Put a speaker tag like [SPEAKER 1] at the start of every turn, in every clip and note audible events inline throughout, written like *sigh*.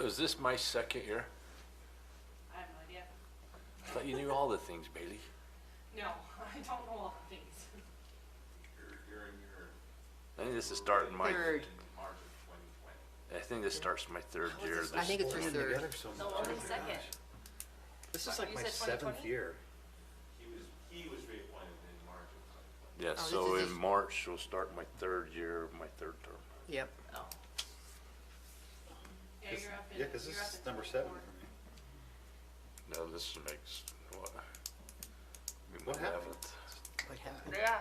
[SPEAKER 1] Is this my second year?
[SPEAKER 2] I have no idea.
[SPEAKER 1] I thought you knew all the things, Bailey.
[SPEAKER 2] No, *laughs* I don't know all the things.
[SPEAKER 3] You're, you're in your.
[SPEAKER 1] I think this is starting my,
[SPEAKER 4] Third.
[SPEAKER 3] in March of twenty twenty.
[SPEAKER 1] I think this starts my third year.
[SPEAKER 2] this
[SPEAKER 4] I
[SPEAKER 1] this-
[SPEAKER 4] think it's your third.
[SPEAKER 2] No, only second.
[SPEAKER 5] This is like
[SPEAKER 2] You
[SPEAKER 5] my
[SPEAKER 2] said 2020?
[SPEAKER 5] seventh year.
[SPEAKER 3] He was, he was reappointed in March of twenty twenty.
[SPEAKER 1] Yeah,
[SPEAKER 4] this
[SPEAKER 1] so
[SPEAKER 4] is
[SPEAKER 1] in
[SPEAKER 4] just-
[SPEAKER 1] March, will start my third year, my third term.
[SPEAKER 4] Yep.
[SPEAKER 2] Oh. Yeah,
[SPEAKER 5] This-
[SPEAKER 2] you're up in.
[SPEAKER 5] Yeah, cause this
[SPEAKER 2] you're up
[SPEAKER 5] is
[SPEAKER 2] in
[SPEAKER 5] number seven
[SPEAKER 2] 24.
[SPEAKER 5] for me.
[SPEAKER 1] Now, this makes, what? I mean,
[SPEAKER 5] What happened?
[SPEAKER 1] eleventh.
[SPEAKER 5] What happened?
[SPEAKER 2] Yeah.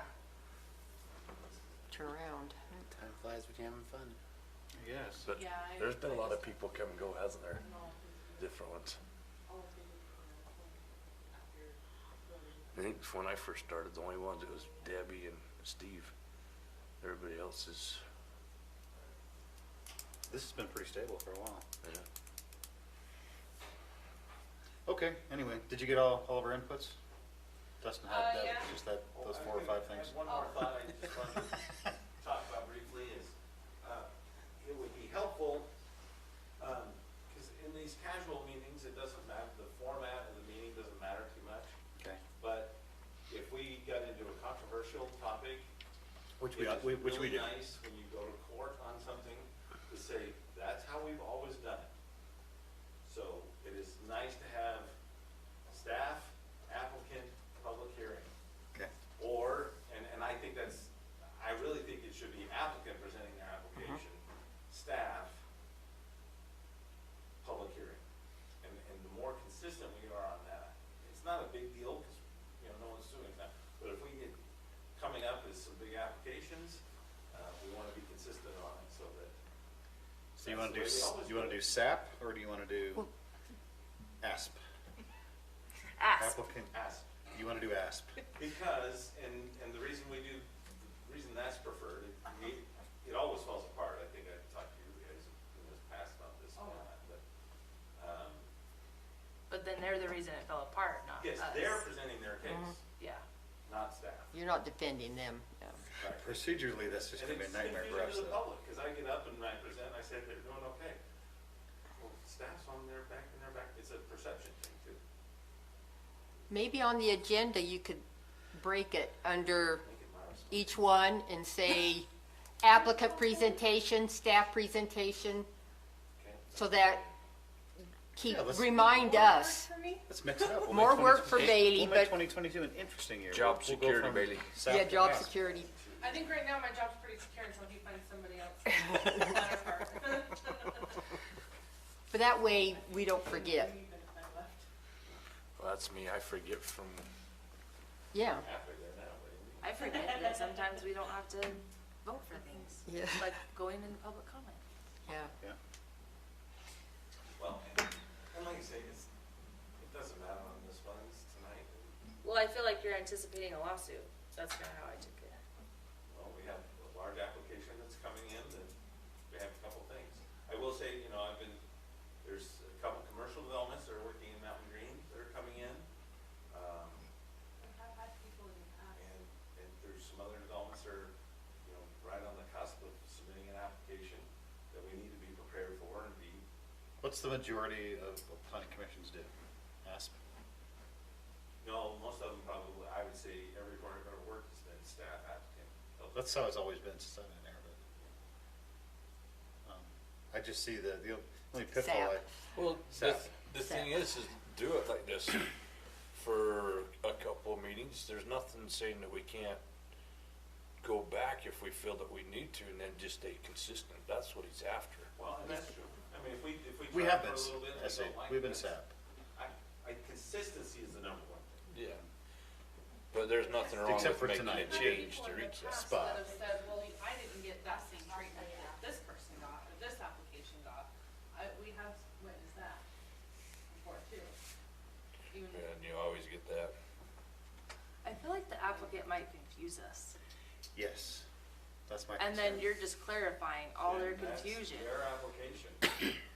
[SPEAKER 4] Turn around.
[SPEAKER 6] Time flies when you're having fun.
[SPEAKER 5] Yes.
[SPEAKER 1] But
[SPEAKER 2] Yeah, I-
[SPEAKER 1] there's been a lot of people come and go, hasn't there?
[SPEAKER 2] No,
[SPEAKER 1] Different ones.
[SPEAKER 2] all of them are after voting.
[SPEAKER 1] I think when I first started, the only ones, it was Debbie and Steve. Everybody else is,
[SPEAKER 5] This has been pretty stable for a while.
[SPEAKER 1] yeah.
[SPEAKER 5] Okay, anyway, did you get all, all of our inputs? Dustin
[SPEAKER 2] Uh,
[SPEAKER 5] had that,
[SPEAKER 2] yeah.
[SPEAKER 5] just that, those four or five things.
[SPEAKER 3] Oh, One more thought I just wanted *laughs* to talk about briefly is, uh, it would be helpful, um 'cause cause in these casual meetings, it doesn't matter, the format of the meeting doesn't matter too much.
[SPEAKER 5] Okay.
[SPEAKER 3] But if we got into a controversial topic,
[SPEAKER 5] Which
[SPEAKER 3] it is really nice when you go to court on something to say, that's how we've always done it. So it is nice to have staff, applicant, public hearing.
[SPEAKER 5] Okay,
[SPEAKER 3] Or, and, and I think that's, I really think it should be applicant presenting their
[SPEAKER 5] Mm-hmm.
[SPEAKER 3] application, staff, public hearing. And, and the more consistent we are on that, it's not a big deal, because, you know, no one's doing that. But if we get, coming up is some big applications, uh, we want to be consistent on it so that.
[SPEAKER 5] so
[SPEAKER 3] that's
[SPEAKER 5] you wanna
[SPEAKER 3] the
[SPEAKER 5] do,
[SPEAKER 3] way we
[SPEAKER 5] s-
[SPEAKER 3] always
[SPEAKER 5] you wanna
[SPEAKER 3] it.
[SPEAKER 5] do SAP, or do you wanna do
[SPEAKER 4] Well-
[SPEAKER 5] ASP? Applicant,
[SPEAKER 3] Ask.
[SPEAKER 5] you wanna do ASP?
[SPEAKER 3] Because, and, and the reason we do, the reason that's preferred, it, we- it always falls apart, I think I talked to you guys in this past about this
[SPEAKER 2] Oh.
[SPEAKER 3] one, but, um,
[SPEAKER 7] But then they're the reason it fell apart, not
[SPEAKER 3] yes,
[SPEAKER 7] us.
[SPEAKER 2] Uh,
[SPEAKER 3] they're presenting their case,
[SPEAKER 7] Yeah.
[SPEAKER 3] not staff.
[SPEAKER 4] You're not defending them. no.
[SPEAKER 3] Right.
[SPEAKER 5] Procedurally, that's just
[SPEAKER 3] And
[SPEAKER 5] gonna be a
[SPEAKER 3] it's
[SPEAKER 5] nightmare for
[SPEAKER 3] confusing
[SPEAKER 5] us.
[SPEAKER 3] to the public, cause I get up and I present, and I said, they're doing okay. Well, staff's on their back and their back, it's a perception thing too.
[SPEAKER 4] Maybe on the agenda, you could break it under
[SPEAKER 3] Make it my responsibility.
[SPEAKER 4] each one and say applicant presentation, staff presentation,
[SPEAKER 3] Okay.
[SPEAKER 4] so that keep,
[SPEAKER 5] Yeah, let's-
[SPEAKER 4] remind us.
[SPEAKER 5] Let's mix it up. We'll
[SPEAKER 4] More
[SPEAKER 5] make
[SPEAKER 4] work for
[SPEAKER 5] 2020
[SPEAKER 4] Bailey,
[SPEAKER 5] we'll make
[SPEAKER 4] but-
[SPEAKER 5] twenty twenty-two an interesting year.
[SPEAKER 1] Job
[SPEAKER 5] We'll- we'll go
[SPEAKER 1] security,
[SPEAKER 5] from
[SPEAKER 1] Bailey.
[SPEAKER 5] SAP
[SPEAKER 4] Yeah,
[SPEAKER 5] to
[SPEAKER 4] job
[SPEAKER 5] ASP.
[SPEAKER 4] security.
[SPEAKER 2] I think right now my job's pretty secure until he finds somebody
[SPEAKER 1] *laughs*
[SPEAKER 2] else. Better part. *laughs*
[SPEAKER 4] But that way, we don't forget.
[SPEAKER 2] Even if I left.
[SPEAKER 1] Well, that's me. I forget from,
[SPEAKER 4] Yeah,
[SPEAKER 3] Halfway there now, but
[SPEAKER 7] I forget that sometimes we don't have to vote for things.
[SPEAKER 4] Yeah.
[SPEAKER 7] Like going in the public comment.
[SPEAKER 4] yeah.
[SPEAKER 5] Yeah.
[SPEAKER 3] Well, and like I say, it's, it doesn't matter on this one, it's tonight.
[SPEAKER 7] Well, I feel like you're anticipating a lawsuit. That's kind of how I took it.
[SPEAKER 3] Well, we have a large application that's coming in and we have a couple things. I will say, you know, I've been, there's a couple commercial developments that are working in Mountain Green that are coming in. Um,
[SPEAKER 2] I've had people in the past.
[SPEAKER 3] and, and there's some other developments that are, you know, right on the cusp of submitting an application that we need to be prepared for and be,
[SPEAKER 5] What's the majority of what planning commissions do? ASP?
[SPEAKER 3] no, most of them probably, I would say everywhere I've ever worked has been staff applicant.
[SPEAKER 5] That's how it's always been since I've been there, but. um, I just see the, the only pitfall,
[SPEAKER 4] Sap.
[SPEAKER 5] I-
[SPEAKER 1] Well, the,
[SPEAKER 5] Sap.
[SPEAKER 1] the thing is, is do it like this for a couple of meetings. There's nothing saying that we can't go back if we feel that we need to and then just stay consistent. That's what he's after.
[SPEAKER 3] Well, and that's true. I mean, if we, if we
[SPEAKER 5] we
[SPEAKER 3] try
[SPEAKER 5] have
[SPEAKER 3] for
[SPEAKER 5] been,
[SPEAKER 3] a little bit,
[SPEAKER 5] I
[SPEAKER 3] and
[SPEAKER 5] say,
[SPEAKER 3] don't like
[SPEAKER 5] we've
[SPEAKER 3] it,
[SPEAKER 5] been
[SPEAKER 3] that's-
[SPEAKER 5] sap.
[SPEAKER 3] I, I, consistency is the number one thing.
[SPEAKER 1] Yeah. But there's nothing wrong with
[SPEAKER 5] Except for
[SPEAKER 1] making a
[SPEAKER 5] tonight.
[SPEAKER 1] change to
[SPEAKER 2] People in the
[SPEAKER 1] reach that.
[SPEAKER 2] past
[SPEAKER 5] spot.
[SPEAKER 2] That have said, well, I didn't get that same treatment that this person got, or this application got. I, we have witnessed that before too. Even,
[SPEAKER 1] And you always get that.
[SPEAKER 7] I feel like the applicant might confuse us.
[SPEAKER 5] yes, that's my concern.
[SPEAKER 7] And then you're just clarifying all their
[SPEAKER 3] And that's
[SPEAKER 7] confusion. *coughs*
[SPEAKER 3] Their application. *laughs* uh,